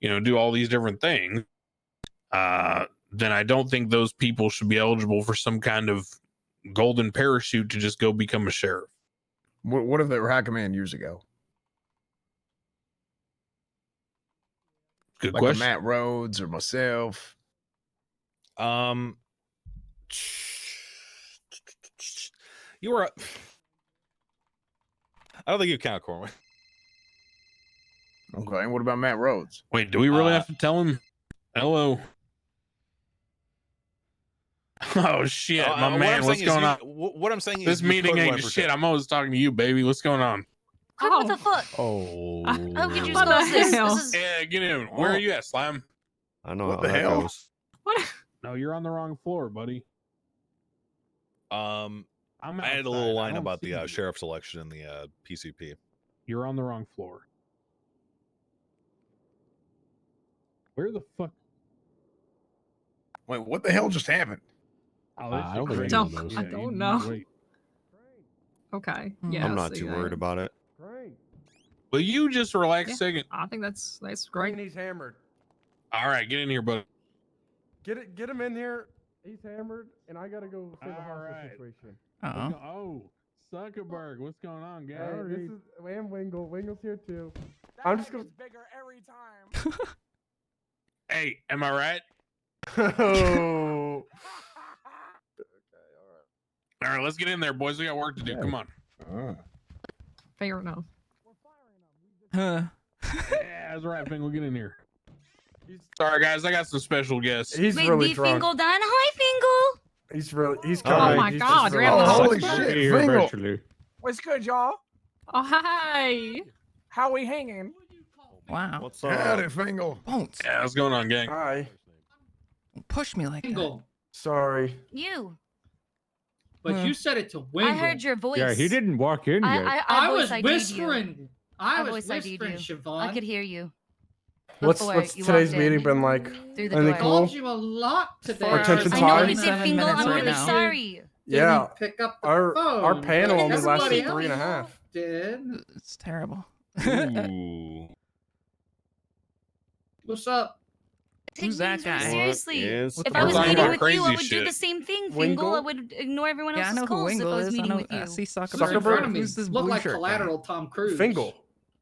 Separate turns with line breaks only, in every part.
you know, do all these different things, uh, then I don't think those people should be eligible for some kind of golden parachute to just go become a sheriff.
What, what if they were Hackaman years ago?
Good
Like a
question.
Matt Rhodes or myself?
Um, you were. a- I don't think you count Corwin.
Okay. What about Matt Rhodes?
Wait, do we really
Uh,
have to tell him? Hello. Oh shit,
Uh,
my
uh, what I'm
man, what's
saying is
going
you-
on?
wh- What I'm saying is
This
you
meeting
could
ain't
1%.
shit. I'm always talking to you, baby. What's going on?
Good, what the fuck?
Oh,
How could you
uh,
What the
spell this?
hell?
This is
Yeah, get in. Where are you at, Slime?
I know
What
how
the
that
hell?
goes.
What?
No, you're on the wrong floor, buddy.
Um,
I'm
I had a little
outside. I
line
don't
about
see
the uh,
you.
sheriff's election in the uh, PCP.
You're on the wrong floor. Where the fuck?
Wait, what the hell just happened?
Oh,
Uh,
that's
I don't
the
think
great-
anyone knows. I don't
you need
know.
to wait.
Okay.
Mm.
Yeah.
I'm not
so
too
yeah,
worried about it.
Will you just relax
Yeah.
a second?
I think that's that's
Right.
great.
he's hammered.
All right, get in here, buddy.
Get it. Get him in here. He's hammered, and I gotta go save a
All
hostage
right.
situation.
What's
Oh.
go- oh, Zuckerberg, what's going on, guys?
Hey, this is and Wingle. Wingle's here too. I'm just gonna.
bigger every time.
Hey, am I right?
oh.
All right, let's get in there, boys. We got work to do. Come on.
Oh.
Fair enough.
Huh.
yeah, that's right, Fingal. Get in here. Sorry, guys. I got some special guests.
He's
Big
really
D
drunk.
Fingal done. Hi,
He's really. He's
Oh
coming.
my
he's just
God,
really
you're having a
drunk.
Holy shit, Fingal.
What's good, y'all?
Oh hi.
How we hanging?
Oh.
Wow.
What's
Howdy, Fingal.
Won't
Yeah, what's going on, gang?
Hi.
push me like that.
Wingle.
Sorry.
Fingal. You.
But
Huh.
you said it to Wingle.
I heard your voice.
didn't walk in
I, I, I,
I was
voice ID'd you.
whispering. I,
I
was
voice ID'd
whispering, Siobhan.
I could hear you.
What's
Before
what's
you
today's
walked in.
meeting been like?
Through the
Anything
door.
cool?
told you a lot today.
Our attention
I know
time?
you did,
Seven
Fingal.
minutes
I'm
right
really
now.
sorry.
Yeah.
Didn't pick up the
Our
phone.
our panel
but
only
Oh, everybody
lasted three and a
else
half.
Did.
It's terrible.
Ooh.
What's up?
Take
Who's that
things very
guy?
Seriously.
Is
If
the
I was
We're talking
meeting
about
with you, I
crazy
would do the
shit.
same thing, Fingal.
Wingle?
I would ignore everyone
yeah, I
else's
know who
calls if I
Wingle
was
is. I
meeting
know.
with
I
you.
see
Who's in front of
Zuckerberg.
me?
Who's this
Look
blue
like
shirt guy?
collateral Tom Cruise.
Fingal.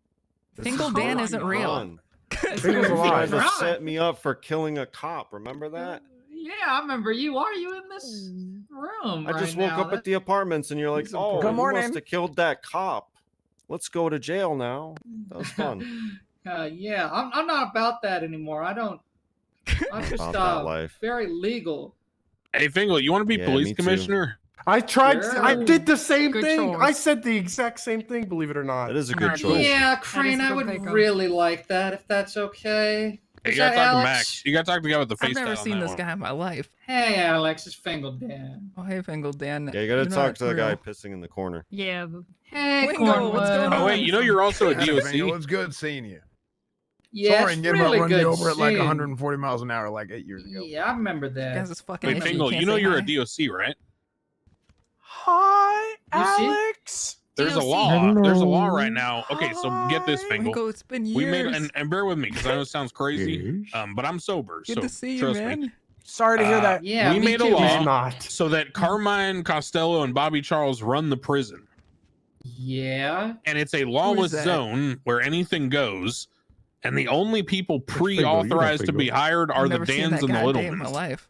Fingal
Oh
Dan
my
isn't real.
Fun.
Fingle's
You
alive.
tried to
Right.
set me up for killing a cop. Remember that?
Yeah, I remember you. Are you in this room?
I just
right
woke
now?
up at the apartments, and you're like,
He's
"Oh,
important.
you
Good
must
morning."
have killed that cop. Let's go to jail now." That was fun.
uh, yeah, I'm, I'm not about that anymore. I don't. I'm just
About that
uh,
life.
very legal.
Hey, Fingal, you want to be
Yeah, me
police
too.
commissioner?
I tried.
Sure.
I did the same
Good
thing. I
choice.
said the exact same thing. Believe it or not.
That is a good choice.
Yeah,
is
Crane,
a
I
good
would
pickup.
really like that if that's okay.
Hey,
Is
you gotta talk
that
to
Alex?
Max. You gotta talk to the guy with the face.
I've never
tat on
seen
that
this
one.
guy in my life.
Hey, Alex, it's Fingal Dan.
Oh, hey, Fingal Dan.
Yeah, you gotta
you're
talk
not
to the guy
real.
pissing in the corner.
Yeah. but-
Hey,
Wingo, what's
Cornwood.
going
Oh wait, you know you're also a
Howdy, Fingal.
DOC.
It's good seeing you.
Yeah,
Sorry,
it's
again
really
about running
good
you over at like
seeing-
140 miles an hour like eight years ago.
Yeah, I remember
You
that.
guys is fucking.
Wait,
idiot.
Fingal,
can't
you know
say
you're a
hi.
DOC, right?
Hi,
You see?
Alex.
There's a
DOC.
law. There's a law right now. Okay, so get this,
Hi.
Fingal.
Fingal, it's been years.
We made and, and bear with me because I know it sounds crazy, um, but I'm sober,
Good
so
to see you,
trust
man.
me.
Sorry to hear
Uh,
that.
Yeah,
we
me
made a
too.
law.
He's not.
So that Carmine Costello and Bobby Charles run the prison,
Yeah.
and it's a lawless
that?
zone where anything goes, and the only people pre-authorized to be hired are
I've
the
never seen
Dans
that
and the
guy a day in my
Littlemans.
life.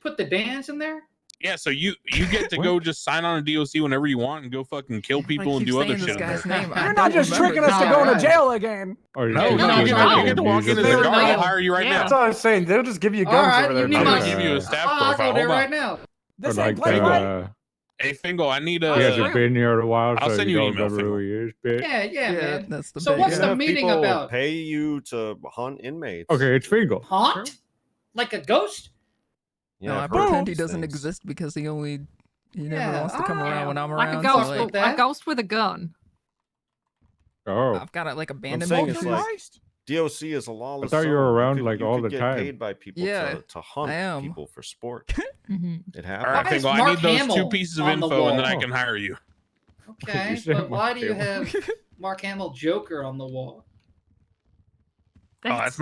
Put the dance in there.
Yeah, so you you get to go just sign on a DOC whenever you want and go fucking kill people
I
and
keep
do other
saying
shit.
This
in there.
guy's name. I
You're
don't
not just
remember
tricking
it.
us to
Yeah,
go
right.
to jail again.
No,
No,
no,
you
you,
don't.
you get to walk into
They
their
were
door.
not-
I'll hire you right
Yeah.
That's
now.
what I was saying. They'll just give you guns
All right,
over there.
you
I'm
need
gonna
my-
give you a staff
I'll
profile.
go there
Hold
right
on.
now.
This ain't
that,
Blade Runner.
Hey, Fingal, I need
He
a.
hasn't been
here in a while,
I'll so send you you an don't email, remember who
he is, bitch.
Yeah, yeah,
Yeah,
man.
that's the.
So
big
what's
guy.
the meeting
people
about?
Pay you to hunt inmates.
it's Fingal.
Haunt? Like a ghost?
Yeah,
no, I
I've heard
pretend
these
he doesn't
things.
exist because he only he never
Yeah,
wants to come
I-
around when I'm
Like a
around. so,
ghost.
like,
like
with-
that?
a ghost with a gun.
Oh,
I've got it like
I'm
abandoned.
saying
me.
it's
Walter
like
Christ.
DOC is a lawless.
thought you were
zone.
around,
could-
like,
you
all
could
the
get
time.
Paid by people
Yeah,
to, to hunt
I am.
people for sport.
Mhm.
It
All right,
happens.
Okay.
Fingal, I
Mark
need those two
Hamill
pieces of
on the
info, and then I
wall.
can hire you.
Okay,
said
but why do you
Mark
have Mark Hamill Joker on the wall?
Oh, that's